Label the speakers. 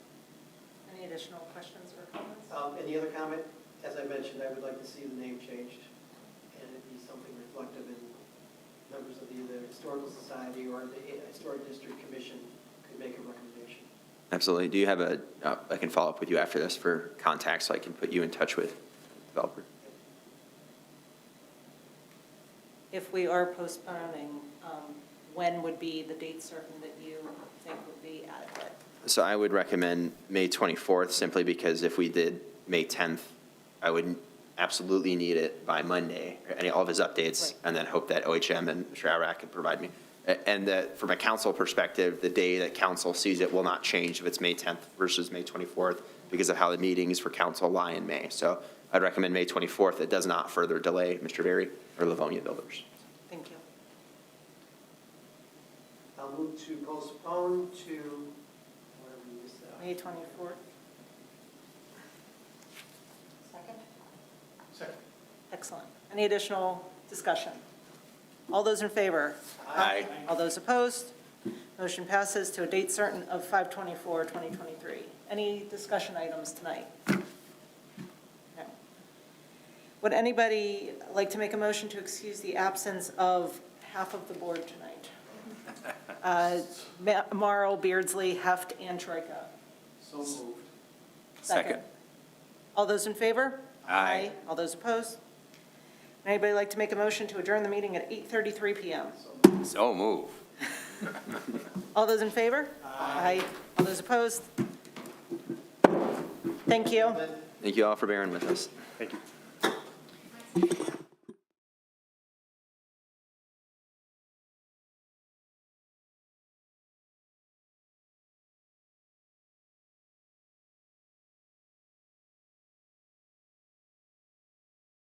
Speaker 1: additional questions or comments?
Speaker 2: Um, Any other comment? As I mentioned, I would like to see the name changed and it be something reflective in members of either the Historical Society or the Historic District Commission could make a recommendation.
Speaker 3: Absolutely. Do you have a, uh, I can follow up with you after this for contacts, so I can put you in touch with developer.
Speaker 1: If we are postponing, um, when would be the date certain that you think would be adequate?
Speaker 3: So I would recommend May 24th, simply because if we did May 10th, I would absolutely need it by Monday, or any, all of his updates,
Speaker 1: Right.
Speaker 3: and then hope that OHM and Mr. Ararat could provide me. A- And that, from a council perspective, the day that council sees it will not change if it's May 10th versus May 24th, because of how the meetings for council lie in May. So I'd recommend May 24th. It does not further delay Mr. Berry or Livonia Builders.
Speaker 1: Thank you.
Speaker 2: I'll move to postpone to, whatever you
Speaker 1: May
Speaker 2: said.
Speaker 1: 24th? Second?
Speaker 2: Second.
Speaker 1: Excellent. Any additional discussion? All those in favor? All those opposed? Motion passes to a date certain of 5/24/2023. Any discussion items tonight? No. Would anybody like to make a motion to excuse the absence of half of the board tonight? Uh, Ma- Marl, Beardsley, Heft, and Troika.
Speaker 2: So moved.
Speaker 1: Second. All those in favor?
Speaker 3: Aye.
Speaker 1: All those opposed? Anybody like to make a motion to adjourn the meeting at 8:33 PM?
Speaker 3: So move.
Speaker 1: All those in favor? Aye. All those opposed? Thank you.
Speaker 3: Thank you all for bearing with us.
Speaker 2: Thank you.